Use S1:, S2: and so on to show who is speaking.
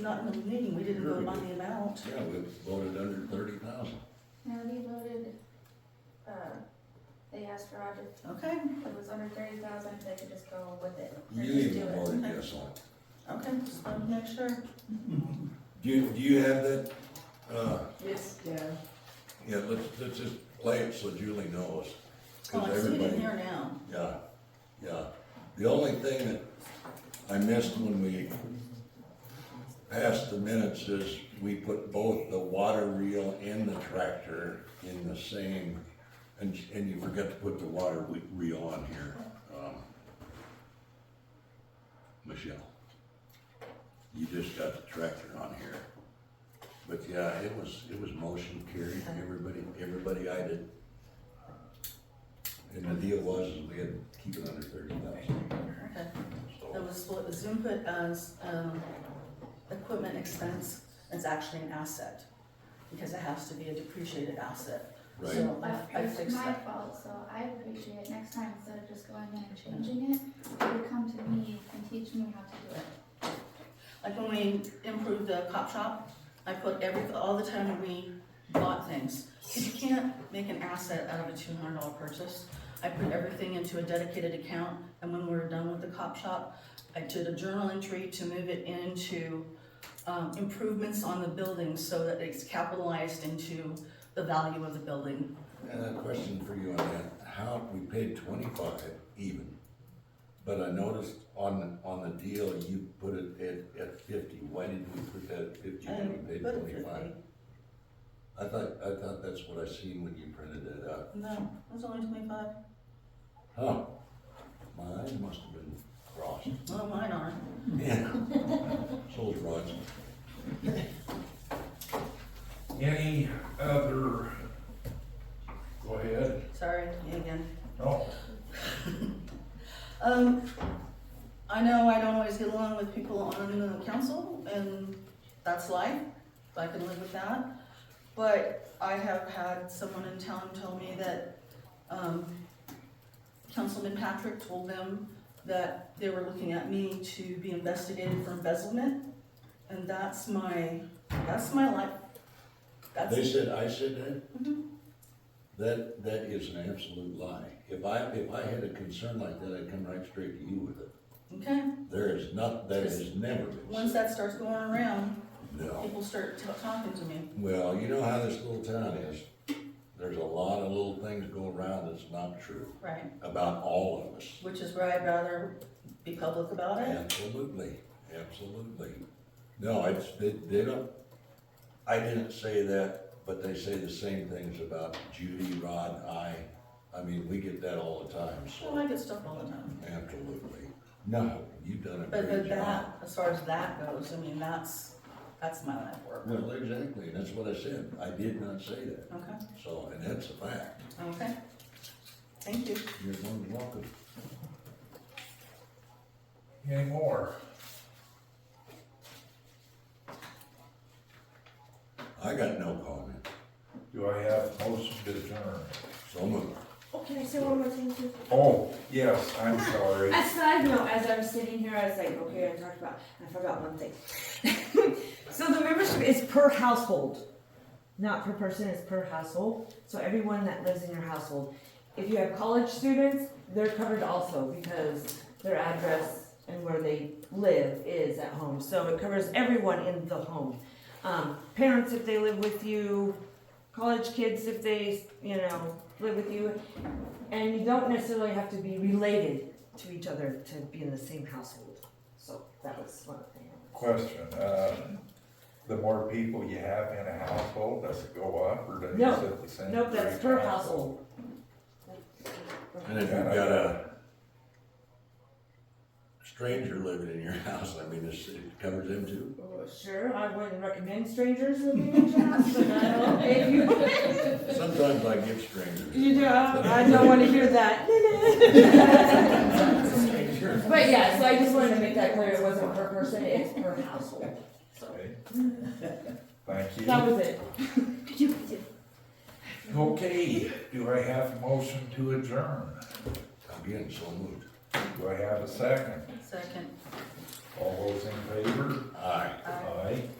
S1: not in the meeting, we didn't vote on the amount.
S2: Yeah, we voted under thirty thousand.
S3: No, they voted, uh, they asked Roger
S1: Okay,
S3: if it was under thirty thousand, if they could just go with it. or
S2: You
S3: just do
S2: even
S3: it.
S2: voted yes on it.
S1: okay, just wanted to make sure.
S2: Do you, do you have that? Uh,
S4: Yes, yeah.
S2: yeah, let's, let's just play it so Julie knows.
S1: Oh,
S2: Cause
S1: I see it in
S2: everybody,
S1: here now.
S2: yeah, yeah. The only thing that I missed when we passed the minutes is we put both the water reel and the tractor in the same, and, and you forgot to put the water we- reel on here. um, Michelle, you just got the tractor on here. But yeah, it was, it was motion carried, everybody, everybody I did. And the deal was, is we had to keep it under thirty thousand,
S1: Okay, that
S2: so,
S1: was what Zoom put as, um, equipment expense, it's actually an asset, because it has to be a depreciated asset.
S2: right,
S1: So
S3: But
S1: I, I
S3: It's
S1: fixed
S3: my
S1: that.
S3: fault, so I appreciate it. Next time, instead of just going in and changing it, you would come to me and teach me how to do it.
S1: Like when we improved the cop shop, I put every, all the time we bought things, because you can't make an asset out of a two hundred dollar purchase. I put everything into a dedicated account, and when we were done with the cop shop, I did a journal entry to move it into um, improvements on the building so that it's capitalized into the value of the building.
S2: and a question for you on that, how, we paid twenty-five even, but I noticed on, on the deal, you put it at, at fifty, why didn't we put that at fifty when we paid
S1: Um, But it-
S2: twenty-five? I thought, I thought that's what I seen when you printed it out,
S1: No, it was only twenty-five.
S2: huh, mine must have been crossed,
S1: Well, mine aren't.
S2: yeah, so's Rod's.
S5: Any other? Go ahead.
S1: Sorry, me again.
S5: Oh,
S1: Um, I know I don't always get along with people on the council, and that's life, I can live with that. But I have had someone in town tell me that, um, Councilman Patrick told them that they were looking at me to be investigated for embezzlement, and that's my, that's my life.
S2: They
S1: That's, Mm-hmm.
S2: said, I said that? That, that is an absolute lie. If I, if I had a concern like that, I'd come right straight to you with it.
S1: okay,
S2: There is not, that has never been.
S1: once that starts going around,
S2: No.
S1: people start t- talking to me.
S2: Well, you know how this little town is. There's a lot of little things go around that's not true
S1: Right.
S2: about all of us.
S1: Which is where I'd rather be public about it.
S2: Absolutely, absolutely. No, it's, they, they don't, I didn't say that, but they say the same things about Judy, Rod, I. I mean, we get that all the time, so.
S1: Well, I get stuff all the time.
S2: Absolutely. No, you've done a
S1: But, but
S2: great job.
S1: that, as far as that goes, I mean, that's, that's my life work.
S2: Well, exactly, and that's what I said. I did not say that.
S1: Okay,
S2: So, and that's a fact.
S1: okay. Thank you.
S2: You're more than welcome.
S5: any more?
S2: I got no comment.
S5: Do I have motion to adjourn?
S2: So moved.
S6: Oh, can I say one more thing too?
S5: Oh, yes, I'm sorry.
S6: As side note, as I was sitting here, I was like, okay, I talked about, I forgot one thing. so the membership is per household, not per person, it's per household. So everyone that lives in your household. If you have college students, they're covered also because their address and where they live is at home. So it covers everyone in the home. Um, parents if they live with you, college kids if they, you know, live with you. And you don't necessarily have to be related to each other to be in the same household. So that was one thing.
S5: Question, uh, the more people you have in a household, does it go up or does
S6: No.
S5: it sit the same?
S6: Nope, that's per household.
S2: And if you've got a stranger living in your house, I mean, it's- it covers them too.
S6: Well, Sure, I wouldn't recommend strangers living in your house, but I don't, if you,
S2: Sometimes I give strangers.
S6: you do, I don't wanna hear that. But yeah, so I just wanted to make that clear, it wasn't per person, it's per household.
S5: Okay. Thank you.
S6: That was it.
S5: Okay, do I have a motion to adjourn?
S2: Again, so moved.
S5: Do I have a second?
S1: Second.
S5: All those in favor?
S2: Aye.
S1: Aye.
S5: Aye.